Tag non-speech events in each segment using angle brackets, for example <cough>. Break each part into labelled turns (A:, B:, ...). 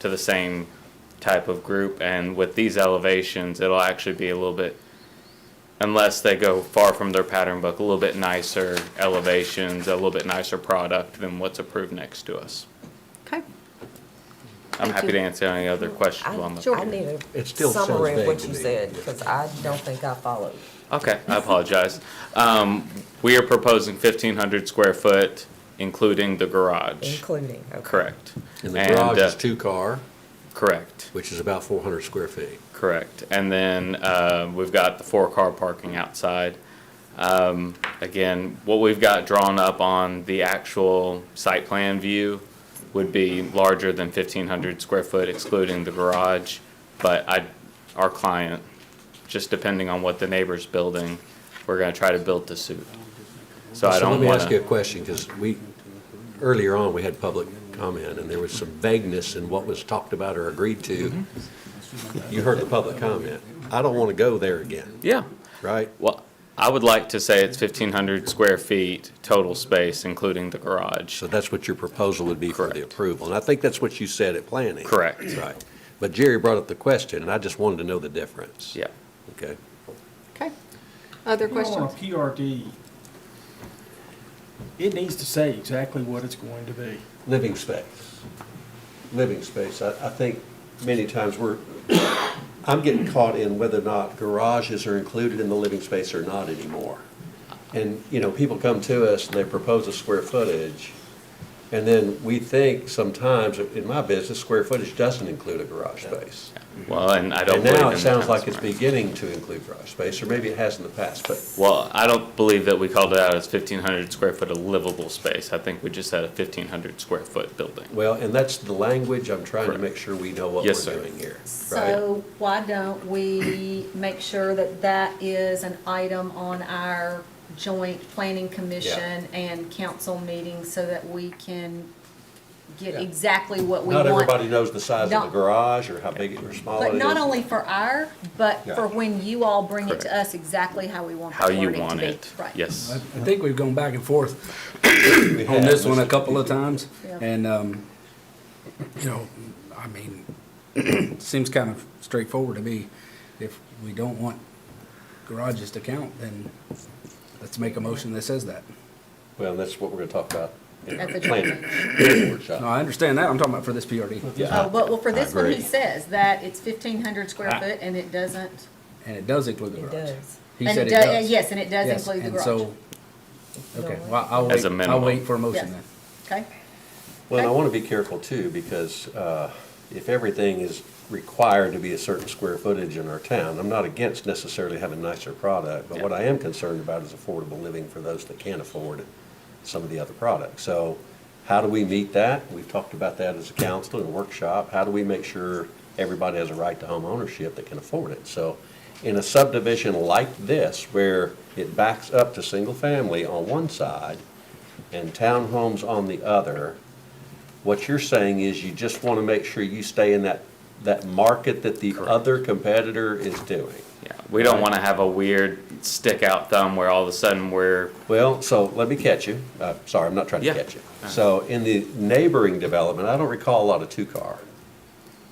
A: to the same type of group. And with these elevations, it'll actually be a little bit, unless they go far from their pattern book, a little bit nicer elevations, a little bit nicer product than what's approved next to us.
B: Okay.
A: I'm
B: Thank
A: happy
B: you.
A: to answer any other questions
C: I
A: on the.
C: I need
D: It
C: a
D: still sounds
C: summary of
D: vague
C: what
D: to
C: you
D: me.
C: said, because I don't think I followed.
A: Okay, I apologize. <laughs> Um, we are proposing fifteen hundred square foot, including the garage.
C: Including, okay.
A: Correct.
D: And the
A: And,
D: garage
A: uh,
D: is two-car,
A: Correct,
D: which is about 400 square feet.
A: correct. And then, uh, we've got the four-car parking outside. Um, again, what we've got drawn up on the actual site plan view would be larger than fifteen hundred square foot excluding the garage. But I, our client, just depending on what the neighbor's building, we're gonna try to build to suit. So I
D: let
A: don't
D: me ask you a
A: wanna,
D: question, because we, earlier on, we had public comment, and there was some vagueness in what was talked about or agreed to. You heard the public comment. I don't want to go there again,
A: yeah.
D: right?
A: Well, I would like to say it's fifteen hundred square feet total space, including the garage.
D: So that's what your proposal would be for the
A: Correct.
D: approval. And I think that's what you said at planning.
A: Correct.
D: Right. But Jerry brought up the question, and I just wanted to know the difference.
A: Yeah.
D: Okay.
B: Okay. Other
E: If you
B: questions?
E: want a PRD, it needs to say exactly what it's going to be.
D: Living space. Living space. I, I think many times we're, I'm getting caught in whether or not garages are included in the living space or not anymore. And, you know, people come to us and they propose a square footage, and then we think sometimes, in my business, square footage doesn't include a garage space.
A: Well, and I don't
D: And
A: believe in
D: now it
A: the
D: sounds like
A: council
D: it's
A: mark.
D: beginning to include garage space, or maybe it has in the past, but
A: Well, I don't believe that we called it out as fifteen hundred square foot of livable space. I think we just had a fifteen hundred square foot building.
D: Well, and that's the language I'm trying to
A: Correct.
D: make sure we know what
A: Yes,
D: we're
A: sir.
D: doing here, right?
F: So why don't we make sure that that is an item on our joint planning commission and council meeting so that we can get
D: Yeah.
F: exactly what we
D: Not
F: want?
D: everybody knows the size of the
F: Not-
D: garage or how big it or small it
F: But
D: is.
F: not only for our, but
D: Yeah.
F: for when you all bring it to
A: Correct.
F: us exactly how we want
A: How
F: the
A: you
F: wording to
A: want
F: be.
A: it.
F: Right.
G: I
A: Yes.
G: I think we've gone back and forth
D: We
G: on
D: have
G: this one a
D: Mr.
G: couple of times,
F: Yeah.
G: and, um, you know, I mean, <clears throat> seems kind of straightforward to me. If we don't want garages to count, then let's make a motion that says that.
D: Well, that's what we're gonna talk about in
F: At
D: the
F: the
D: planning
G: No,
D: workshop.
G: I understand that, I'm talking about for this PRD,
F: Oh, but, well, for this one, he
D: agree.
F: says that it's fifteen hundred square
G: Ah.
F: foot and it doesn't.
G: and it does include the
C: It
G: garage.
C: does.
G: He
F: and
G: said it
F: do-
G: does.
F: Yes, and it does
G: Yes,
F: include the
G: and
F: garage.
G: so- Okay, well, I'll
A: As
G: wait,
A: a
G: I'll
A: minimum.
G: wait for a motion
F: Yes.
G: then.
F: Okay,
D: Well, and I wanna be careful too, because, uh, if everything is required to be a certain square footage in our town, I'm not against necessarily having nicer product, but what I am concerned about is affordable living for those that can't afford some of the other products. So how do we meet that? We've talked about that as a council and a workshop. How do we make sure everybody has a right to home ownership that can afford it? So in a subdivision like this, where it backs up to single family on one side and townhomes on the other, what you're saying is you just want to make sure you stay in that, that market that the other competitor is doing.
A: Yeah. We don't want to have a weird stick out thumb where all of a sudden we're,
D: Well, so let me catch you. Uh, sorry, I'm not trying to
A: Yeah.
D: catch you. So in the neighboring development, I don't recall a lot of two-car.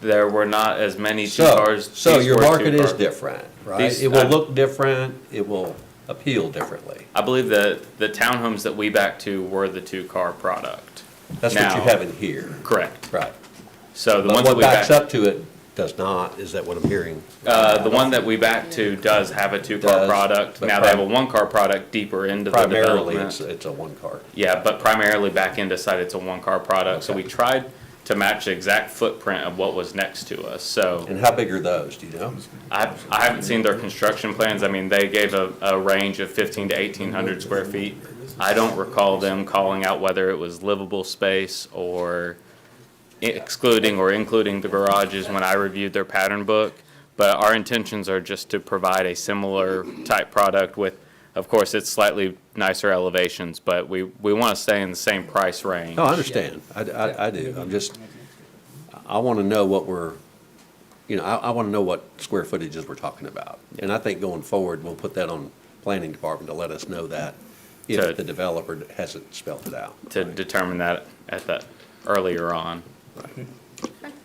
A: there were not as many two
D: So,
A: cars.
D: so
A: these
D: your
A: were two
D: market is
A: car-
D: different, right?
A: These-
D: It will
A: uh,
D: look different, it will appeal differently.
A: I believe that the townhomes that we back to were the two car product.
D: That's what you
A: Now-
D: have in here,
A: Correct.
D: right?
A: So the
D: But
A: ones that
D: what
A: we
D: backs
A: back,
D: up to it does not, is that what I'm hearing?
A: uh, the one that we back to does have a two car
D: Does,
A: product.
D: but
A: Now they have a
D: prim-
A: one car product deeper into the development.
D: Primarily, it's, it's a one-car.
A: Yeah, but primarily back end side, it's a one-car product, so we
D: Okay.
A: tried to match the exact footprint of what was next to us, so.
D: And how big are those, do you know?
A: I, I haven't seen their construction plans, I mean, they gave a, a range of fifteen to eighteen hundred square feet. I don't recall them calling out whether it was livable space or excluding or including the garages when I reviewed their pattern book. But our intentions are just to provide a similar type product with, of course, it's slightly nicer elevations, but we, we want to stay in the same price range.
D: No, I understand. I, I, I do. I'm just, I want to know what we're, you know, I, I want to know what square footages we're talking about. And I think going forward, we'll put that on planning department to let us know that
A: To-
D: if the developer hasn't spelled it out.
A: to determine that at that earlier on.
F: okay.